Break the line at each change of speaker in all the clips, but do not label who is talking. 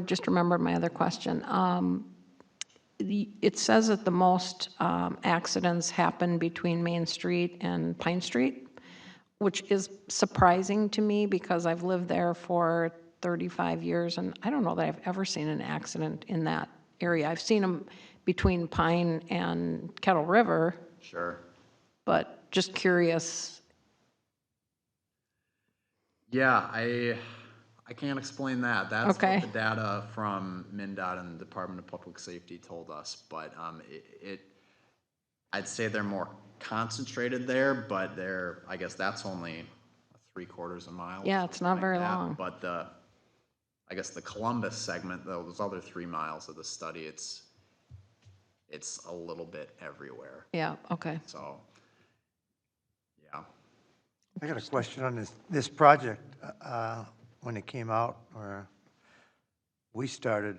Just remembered my other question. Um, the- It says that the most um, accidents happen between Main Street and Pine Street, which is surprising to me because I've lived there for 35 years, and I don't know that I've ever seen an accident in that area. I've seen them between Pine and Kettle River,
Sure.
but just curious.
Yeah, I, I can't explain that. That's
Okay.
what the data from MinDOT and Department of Public Safety told us, but um, it, it, I'd say they're more concentrated there, but they're, I guess that's only three quarters of a mile. or
Yeah, it's
something
not
like
very
that.
long.
But the, I guess the Columbus segment, those other three miles of the study, it's, it's a little bit everywhere,
Yeah, okay.
so, yeah.
I got a question on this, this project. uh, When it came out, or we started,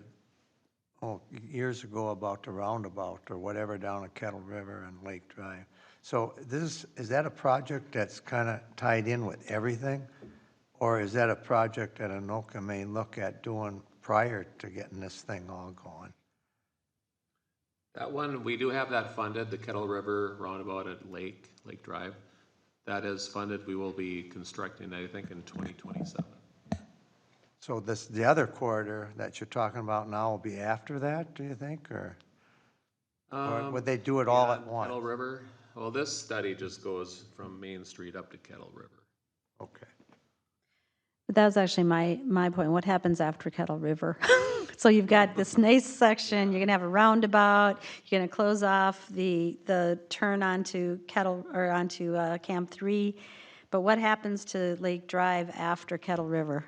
oh, years ago about the roundabout or whatever down at Kettle River and Lake Drive. So this, is that a project that's kind of tied in with everything? Or is that a project that Anoka may look at doing prior to getting this thing all going?
That one, we do have that funded, the Kettle River Roundabout at Lake, Lake Drive. That is funded. We will be constructing, I think, in 2027.
So this, the other corridor that you're talking about now will be after that, do you think, or? Or
Um,
would they do it all at
yeah,
once?
Kettle River. Well, this study just goes from Main Street up to Kettle River.
Okay.
But That was actually my, my point. What happens after Kettle River? So you've got this nice section, you're gonna have a roundabout, you're gonna close off the, the turn onto Kettle, or onto uh, Camp Three. But what happens to Lake Drive after Kettle River?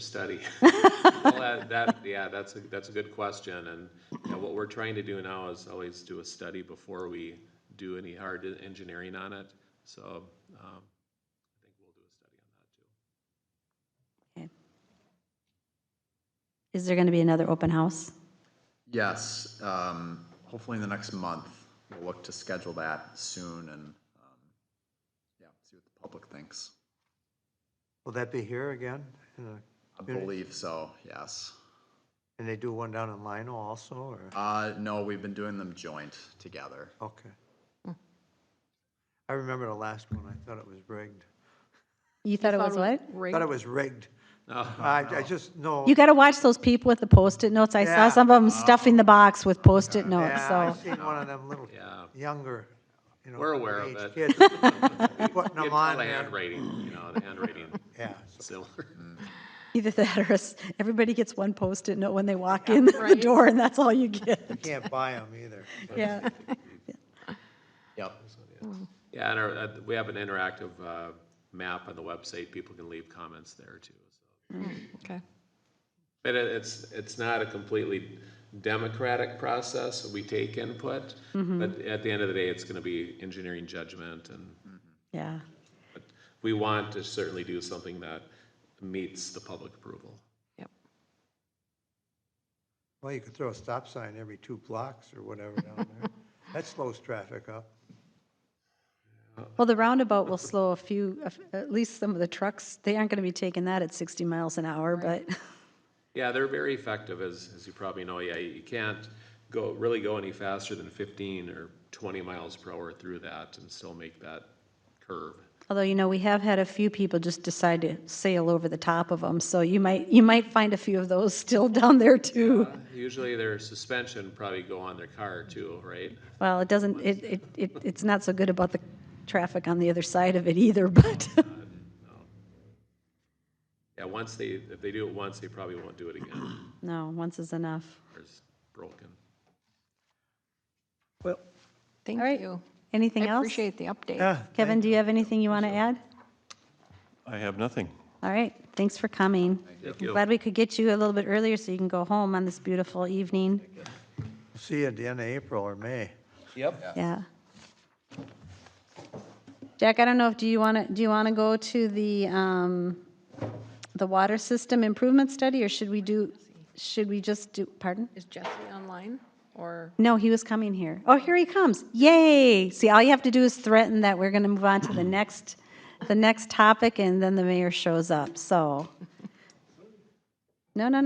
study. Well, that- That, yeah, that's, a that's a good question, and you know, what we're trying to do now is always do a study before we do any hard engineering on it, so um, I think we'll do a study on that too.
Is there gonna be another open house?
Yes, um, hopefully in the next month, we'll look to schedule that soon and, um, yeah, see what the public thinks.
Will that be here again? in the
I
community?
believe so, yes.
And they do one down in Lino also, or?
Uh, no, we've been doing them joint together.
Okay.
Hmm.
I remember the last one, I thought it was rigged.
You thought it was what?
Thought it was rigged.
Oh.
I, I just, no.
You gotta watch those people with the Post-it notes.
Oh.
I
Yeah. Oh.
saw some of them stuffing the box with Post-it notes,
Yeah,
so.
I've seen one of them little
Yeah.
younger, you know.
We're aware of
teenage kids
it.
Putting them
You can
on
tell the
there.
handwriting, you know, the handwriting,
Yeah.
similar.
Either that or s- everybody gets one Post-it note when they walk in the door and that's all you get.
Can't buy them either.
Yeah.
Yep.
Yeah, and our, uh, we have an interactive uh, map on the website, people can leave comments there too. so.
Okay.
But it- it's, it's not a completely democratic process, we take input, but at the end of the day, it's gonna be engineering judgment, and
Yeah.
but we want to certainly do something that meets the public approval.
Yep.
Well, you could throw a stop sign every two blocks or whatever down there. That slows traffic up.
Well, the roundabout will slow a few, a f- at least some of the trucks, they aren't going to be taking that at 60 miles an hour, but
Yeah, they're very effective, as, as you probably know, yeah, you can't go, really go any faster than fifteen or twenty miles per hour through that and still make that curve.
although, you know, we have had a few people just decide to sail over the top of them, so you might, you might find a few of those still down there too.
Usually their suspension probably go on their car too, right?
Well, it doesn't, it, it, it it's not so good about the traffic on the other side of it either, but,
Yeah, once they, if they do it once, they probably won't do it again,
no, once is enough.
or it's broken.
Well,
Thank
All right.
you.
Anything
I
else?
appreciate the update.
yeah.
Kevin, do you have anything you want to add?
I have nothing.
All right, thanks for coming.
Thank you.
Glad we could get you a little bit earlier so you can go home on this beautiful evening.
See you at the end of April or May.
Yeah. Jack, I don't know if, do you want to, do you want to go to the, um, the water system improvement study, or should we do, should we just do, pardon?
Is Jesse online or?
No, he was coming here. Oh, here he comes. Yay! See, all you have to do is threaten that we're going to move on to the next, the next topic, and then the mayor shows up, so. No, no, no.